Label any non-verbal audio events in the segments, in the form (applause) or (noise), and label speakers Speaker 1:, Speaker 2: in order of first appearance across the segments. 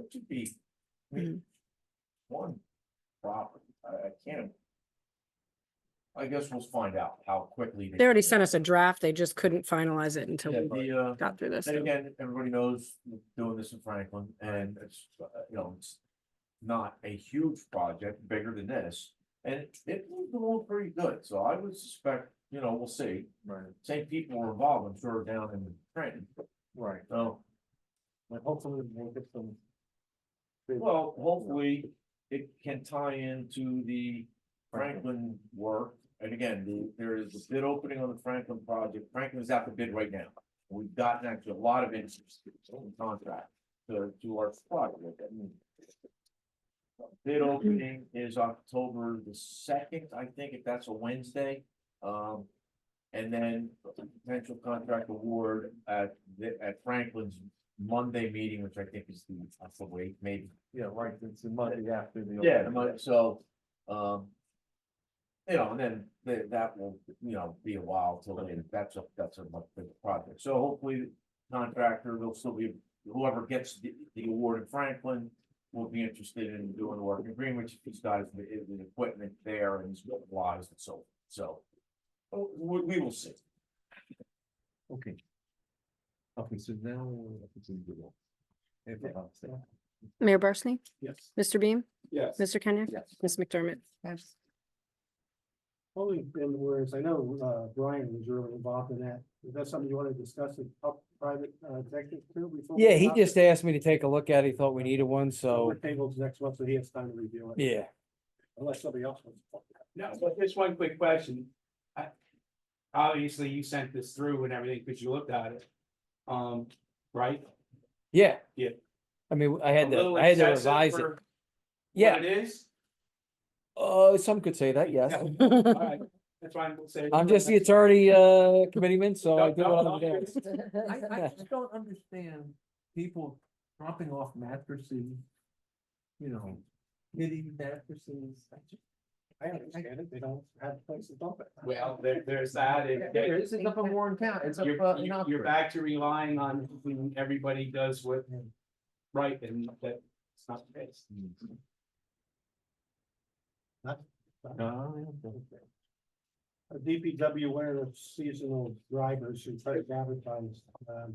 Speaker 1: it to be. I
Speaker 2: Hmm.
Speaker 1: mean, One property, I, I can't. I guess we'll find out how quickly.
Speaker 2: They already sent us a draft. They just couldn't finalize it until
Speaker 1: Yeah,
Speaker 2: we
Speaker 1: the, uh,
Speaker 2: got through this.
Speaker 1: and again, everybody knows we're doing this in Franklin and it's, uh, you know, it's. Not a huge project, bigger than this, and it, it moved along pretty good, so I would suspect, you know, we'll see.
Speaker 3: Right,
Speaker 1: Same people were involved, I'm sure, down in Trenton,
Speaker 3: right.
Speaker 1: so.
Speaker 3: But hopefully we'll get some.
Speaker 1: Well, hopefully, it can tie into the Franklin work, and again, the- there is a bid opening on the Franklin project, Franklin is out to bid right now. We've gotten actually a lot of interest in contract to do our project, I mean. Bid opening is October the second, I think, if that's a Wednesday, um. And then potential contract award at, the- at Franklin's Monday meeting, which I think is the, that's the week, maybe.
Speaker 3: Yeah, right, it's a Monday after the.
Speaker 1: Yeah, the money, so, um. You know, and then th- that will, you know, be a while till then, that's a, that's a much bigger project, so hopefully the contractor, will still be, whoever gets the, the award in Franklin. Will be interested in doing the work in Greenwich, if he's got his, his equipment there and he's got wires and so, so. oh, We, we will see,
Speaker 3: Okay. Okay, so now. we're up to the law. If I'm not mistaken.
Speaker 2: Mayor Barsney?
Speaker 3: Yes.
Speaker 2: Mr. Beam?
Speaker 4: Yes.
Speaker 2: Mr. Kenyek?
Speaker 1: yes.
Speaker 2: Ms. McDermott?
Speaker 5: Yes. Only in words, I know uh, Brian was really involved in that. Is that something you want to discuss in pub- private uh, executive too? before we
Speaker 6: Yeah, he
Speaker 5: adopt it?
Speaker 6: just asked me to take a look at it. He thought we needed one, so,
Speaker 5: We're tabled to next month, so he has time to review it,
Speaker 6: yeah.
Speaker 5: unless somebody else wants.
Speaker 4: No, but just one quick question. I- Obviously, you sent this through and everything, because you looked at it. Um, right?
Speaker 6: Yeah.
Speaker 4: Yeah.
Speaker 6: I mean, I
Speaker 4: A
Speaker 6: had to,
Speaker 4: little
Speaker 6: I had to
Speaker 4: excessive
Speaker 6: revise it.
Speaker 4: for what
Speaker 6: Yeah,
Speaker 4: It is,
Speaker 6: (laughs) uh, some could say that, yes.
Speaker 4: all right, that's why I'm saying.
Speaker 6: (laughs) I'm just the attorney, uh, committeeman, so I
Speaker 4: No,
Speaker 6: do
Speaker 4: no,
Speaker 6: what
Speaker 4: no,
Speaker 6: I'm doing.
Speaker 4: (laughs)
Speaker 3: I, I just don't understand people dropping off mattresses. You know, knitting mattresses. I just-
Speaker 5: I understand it, they don't have a place to dump it.
Speaker 4: Well, there, there's that, and
Speaker 3: There is, it's up in Warren County, it's up.
Speaker 4: you're,
Speaker 3: uh, in
Speaker 4: you're-
Speaker 3: Oxford.
Speaker 4: you're back to relying on when everybody does what. Right, and that's not the case.
Speaker 3: Oh, yeah, okay.
Speaker 5: A DPW, one of the seasonal drivers who try to advertise, um,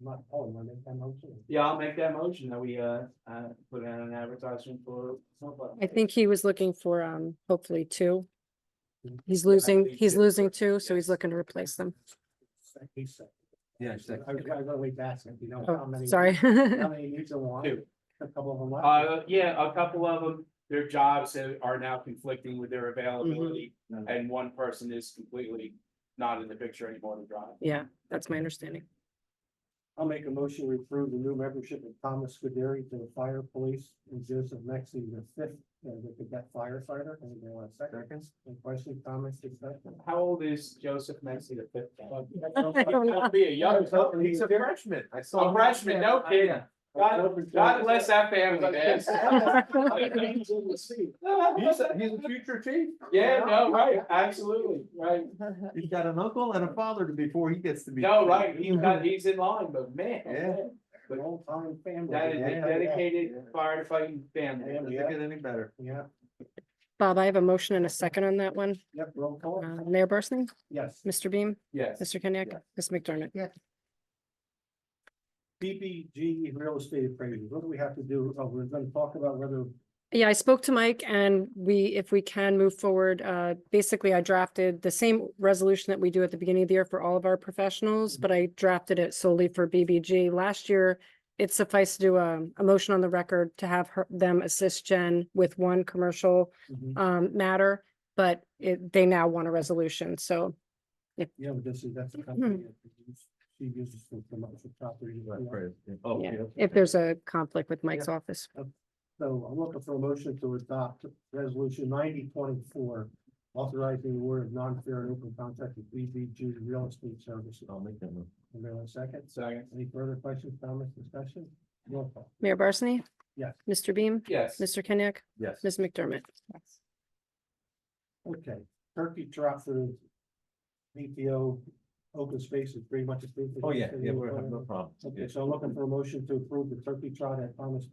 Speaker 5: not calling when they come out to.
Speaker 4: Yeah, I'll make that motion that we, uh, uh, put out an advertisement for somebody.
Speaker 2: I think he was looking for, um, hopefully two.
Speaker 5: Mhm.
Speaker 2: He's losing,
Speaker 4: think
Speaker 2: he's
Speaker 4: it's-
Speaker 2: losing two, so he's
Speaker 4: yes.
Speaker 2: looking to replace them.
Speaker 5: He said.
Speaker 3: Yeah,
Speaker 5: I
Speaker 3: exactly.
Speaker 5: was gonna wait to ask him, you know, how
Speaker 2: Oh,
Speaker 5: many.
Speaker 2: sorry. (laughs)
Speaker 5: How many you still want?
Speaker 4: Two.
Speaker 5: A couple of them left.
Speaker 4: Uh, yeah, a couple of them, their jobs have- are now conflicting with their availability,
Speaker 3: Mhm.
Speaker 4: and one person is completely not in the picture anymore to drive.
Speaker 2: Yeah, that's my understanding.
Speaker 5: I'll make a motion to approve the new membership of Thomas Scudery to the fire police and Joseph Mexi, the fifth, uh, the cadet firefighter. Anybody want a second? Any questions, comments, discussion?
Speaker 4: How old is Joseph Maxey the fifth? (laughs)
Speaker 2: I don't know.
Speaker 4: He'll Be a young,
Speaker 3: Oh, He's a freshman, I saw.
Speaker 4: a
Speaker 3: him.
Speaker 4: freshman, no
Speaker 3: Yeah,
Speaker 4: kidding.
Speaker 3: yeah.
Speaker 4: God, God bless that family, man. (laughs)
Speaker 3: He's a, he's a future
Speaker 5: (laughs)
Speaker 3: chief.
Speaker 4: Yeah, no, right, absolutely, right.
Speaker 3: He's got an uncle and a father to- before he gets to be.
Speaker 4: No, right,
Speaker 5: (laughs)
Speaker 4: he's not, he's in line, but man.
Speaker 3: Yeah.
Speaker 5: Long-time family.
Speaker 4: That is
Speaker 5: Yeah,
Speaker 4: a
Speaker 5: yeah.
Speaker 4: dedicated firefighting family.
Speaker 3: Doesn't get any better.
Speaker 5: Yeah,
Speaker 2: (laughs) Bob, I have a motion and a second on that one.
Speaker 5: yep, roll call,
Speaker 2: Uh, Mayor Barsney?
Speaker 5: yes.
Speaker 2: Mr. Beam?
Speaker 4: Yes.
Speaker 2: Mr. Kenyek? Ms. McDermott?
Speaker 5: BBG real estate appraisal, what do we have to do? Oh, we're gonna talk about whether
Speaker 2: Yeah, I spoke to Mike and we, if we can move forward, uh, basically I drafted the same resolution that we do at the beginning of the year for all of our professionals, but I drafted it solely for BBG. Last year, it sufficed to do a, a motion on the record to have her, them assist Jen with one commercial,
Speaker 5: Mhm.
Speaker 2: um, matter, but it, they now want a resolution, so.
Speaker 5: Yeah, but this is, that's a company. that produce- She uses for commercial property. you know.
Speaker 3: Oh,
Speaker 2: Yeah.
Speaker 3: yeah.
Speaker 2: If there's a conflict with Mike's office,
Speaker 5: So I'm looking for a motion to adopt resolution ninety twenty-four, authorizing the award of non-fair and open contract with BBG Real Estate Services.
Speaker 3: I'll make that one.
Speaker 5: Anybody want a second?
Speaker 4: Second.
Speaker 5: Any further questions, comments, discussion? Roll call.
Speaker 2: Mayor Barsney?
Speaker 5: Yes.
Speaker 2: Mr. Beam?
Speaker 4: Yes.
Speaker 2: Mr. Kenyek?
Speaker 3: Yes.
Speaker 2: Ms. McDermott?
Speaker 5: Okay, turkey trot for the BPO open space is pretty much approved.
Speaker 3: Oh, yeah, yeah, we have no problem.
Speaker 5: Okay, so I'm looking for a motion to approve the turkey trot at Thomas